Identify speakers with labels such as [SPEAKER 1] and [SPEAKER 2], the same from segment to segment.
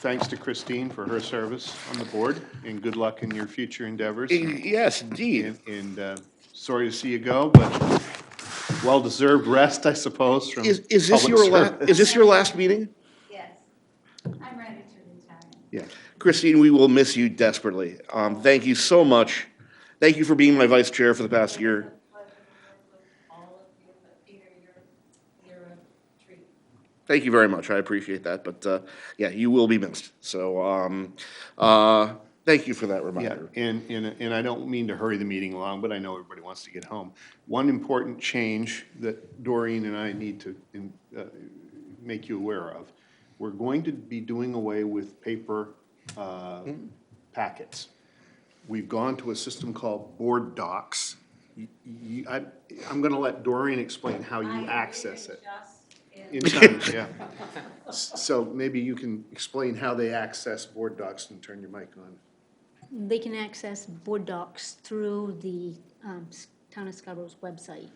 [SPEAKER 1] thanks to Christine for her service on the board, and good luck in your future endeavors.
[SPEAKER 2] Yes, indeed.
[SPEAKER 1] And- And uh, sorry to see you go, but well-deserved rest, I suppose, from
[SPEAKER 2] Is, is this
[SPEAKER 1] public
[SPEAKER 2] your la,
[SPEAKER 1] service.
[SPEAKER 2] is this your last meeting?
[SPEAKER 3] Yes, I'm ready to retire.
[SPEAKER 1] Yeah.
[SPEAKER 2] Christine, we will miss you desperately. Um, thank you so much. Thank you for being my vice chair for the past year.
[SPEAKER 3] Pleasure to work with all of you, but Peter, you're, you're a treat.
[SPEAKER 2] Thank you very much. I appreciate that. But, uh, yeah, you will be missed. So, um, uh, thank you for that
[SPEAKER 1] Yeah,
[SPEAKER 2] reminder.
[SPEAKER 1] and, and, and I don't mean to hurry the meeting along, but I know everybody wants to get home. One important change that Doreen and I need to in- uh, make you aware of, we're going to be doing away with paper uh, packets. We've gone to a system called Board Docs. Y- y- I, am going to let Doreen explain how you access it. In time, yeah. S- So maybe you can explain how they access Board Docs and turn your mic on.
[SPEAKER 4] They can access board docs through the um, S- Town of Scarborough's website,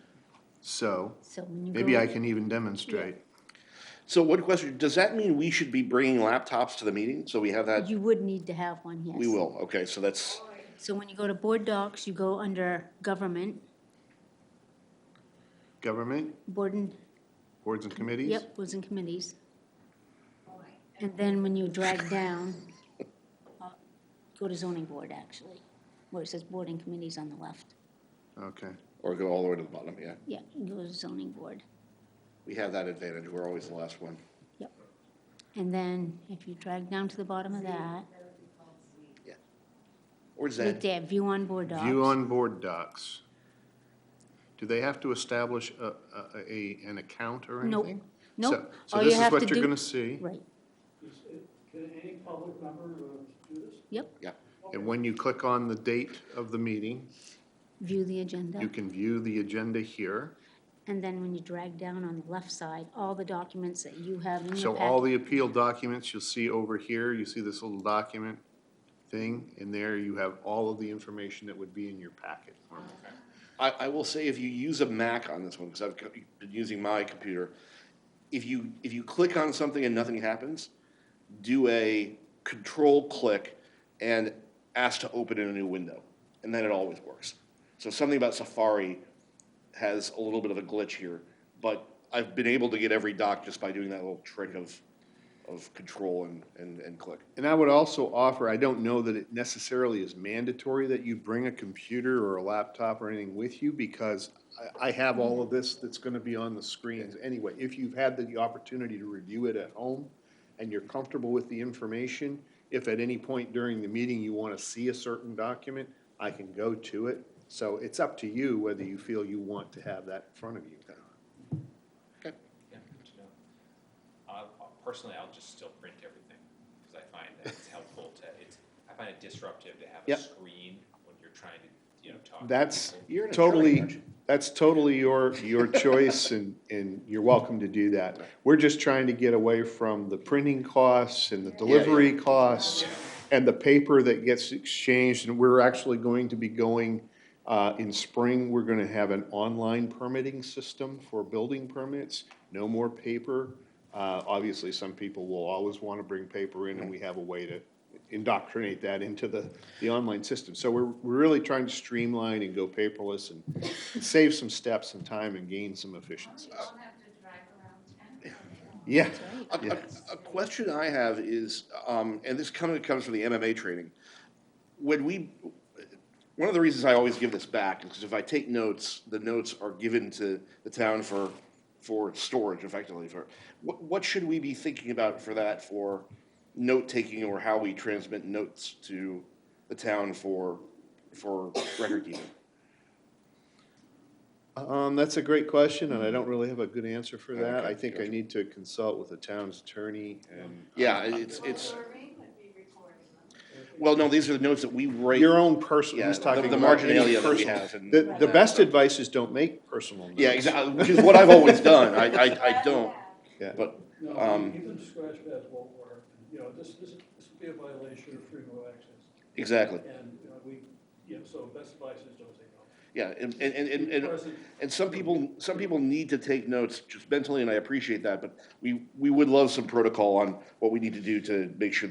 [SPEAKER 1] So
[SPEAKER 4] so when you go.
[SPEAKER 1] Maybe I can even demonstrate.
[SPEAKER 2] So one question, does that mean we should be bringing laptops to the meeting? So we have that?
[SPEAKER 4] You would need to have one, yes.
[SPEAKER 2] We will. Okay, so that's,
[SPEAKER 4] So when you go to board docs, you go under government,
[SPEAKER 1] Government,
[SPEAKER 4] board and,
[SPEAKER 1] boards and committees?
[SPEAKER 4] yep, boards and committees. And then when you drag down, uh, go to zoning board, actually, where it says board and committees on the left.
[SPEAKER 1] Okay.
[SPEAKER 2] or go all the way to the bottom, yeah.
[SPEAKER 4] Yeah, you go to zoning board,
[SPEAKER 2] We have that advantage. We're always the last one.
[SPEAKER 4] yep. And then if you drag down to the bottom of that,
[SPEAKER 2] Or
[SPEAKER 4] right
[SPEAKER 2] Zen.
[SPEAKER 4] there, view on board docs.
[SPEAKER 1] View on board docs. Do they have to establish a, a- a, an account or
[SPEAKER 4] Nope.
[SPEAKER 1] anything?
[SPEAKER 4] Nope.
[SPEAKER 1] So- So
[SPEAKER 4] All you
[SPEAKER 1] this is
[SPEAKER 4] have
[SPEAKER 1] what
[SPEAKER 4] to
[SPEAKER 1] you're
[SPEAKER 4] do-
[SPEAKER 1] gonna see,
[SPEAKER 4] Right,
[SPEAKER 5] Can any public member uh, do this?
[SPEAKER 4] yep,
[SPEAKER 1] and when you click on the date of the meeting,
[SPEAKER 4] view the agenda.
[SPEAKER 1] you can view the agenda here.
[SPEAKER 4] And then when you drag down on the left side, all the documents that you have in your
[SPEAKER 1] So all
[SPEAKER 4] packet.
[SPEAKER 1] the appeal documents you'll see over here, you see this little document thing, and there you have all of the information that would be in your packet.
[SPEAKER 2] I, I will say if you use a Mac on this one, because I've co- been using my computer, if you, if you click on something and nothing happens, do a control click and ask to open in a new window, and then it always works. So something about Safari has a little bit of a glitch here, but I've been able to get every doc just by doing that little trick of, of control and, and, and click.
[SPEAKER 1] And I would also offer, I don't know that it necessarily is mandatory that you bring a computer or a laptop or anything with you, because I, I have all of this that's gonna be on the screens anyway. If you've had the opportunity to review it at home and you're comfortable with the information, if at any point during the meeting you wanna see a certain document, I can go to it. So it's up to you whether you feel you want to have that in front of you.
[SPEAKER 6] Yeah, good to know. I'll- I'll- Personally, I'll just still print everything, because I find that it's helpful to, it's, I find it disruptive to have
[SPEAKER 1] Yep.
[SPEAKER 6] a screen when you're trying to, you know, talk. to
[SPEAKER 1] That's
[SPEAKER 6] people.
[SPEAKER 2] You're in a
[SPEAKER 1] totally,
[SPEAKER 2] charge.
[SPEAKER 1] that's totally your, your choice, and, and you're welcome to do that. We're just trying to get away from the printing costs and the delivery costs and the paper that gets exchanged, and we're actually going to be going, uh, in spring, we're gonna have an online permitting system for building permits, no more paper. Uh, obviously, some people will always wanna bring paper in, and we have a way to indoctrinate that into the, the online system. So we're, we're really trying to streamline and go paperless and save some steps and time and gain some efficiencies.
[SPEAKER 3] You don't have to drive around town.
[SPEAKER 1] Yeah,
[SPEAKER 2] A, a- a question I have is, um, and this kind of comes from the MMA training. When we, one of the reasons I always give this back is because if I take notes, the notes are given to the town for, for storage effectively for, what, what should we be thinking about for that for note-taking or how we transmit notes to the town for, for record keeping?
[SPEAKER 1] um, that's a great question, and I don't really have a good answer for that.
[SPEAKER 2] Okay,
[SPEAKER 1] I think I
[SPEAKER 2] gotcha.
[SPEAKER 1] need to consult with the town's attorney and
[SPEAKER 2] Yeah, it's, it's,
[SPEAKER 3] Doreen would be recording them.
[SPEAKER 2] well, no, these are the notes that we write.
[SPEAKER 1] your own personal,
[SPEAKER 2] Yeah,
[SPEAKER 1] he's
[SPEAKER 2] the-
[SPEAKER 1] talking
[SPEAKER 2] the
[SPEAKER 1] about any
[SPEAKER 2] marginalia that we
[SPEAKER 1] personal.
[SPEAKER 2] have and-
[SPEAKER 1] The, the best advice is don't make personal notes.
[SPEAKER 2] Yeah, exactly, which is what I've always done. I, I, I don't,
[SPEAKER 1] Yeah.
[SPEAKER 2] but
[SPEAKER 5] No,
[SPEAKER 2] Um,
[SPEAKER 5] even scratch pads won't work. And, You know, this, this, this would be a violation of freedom of access.
[SPEAKER 2] Exactly,
[SPEAKER 5] And, you know, we, yeah, so best advice is don't take notes.
[SPEAKER 2] yeah, and, and, and, and,
[SPEAKER 5] Present,
[SPEAKER 2] and some people, some people need to take notes just mentally, and I appreciate that, but we, we would love some protocol on what we need to do to make sure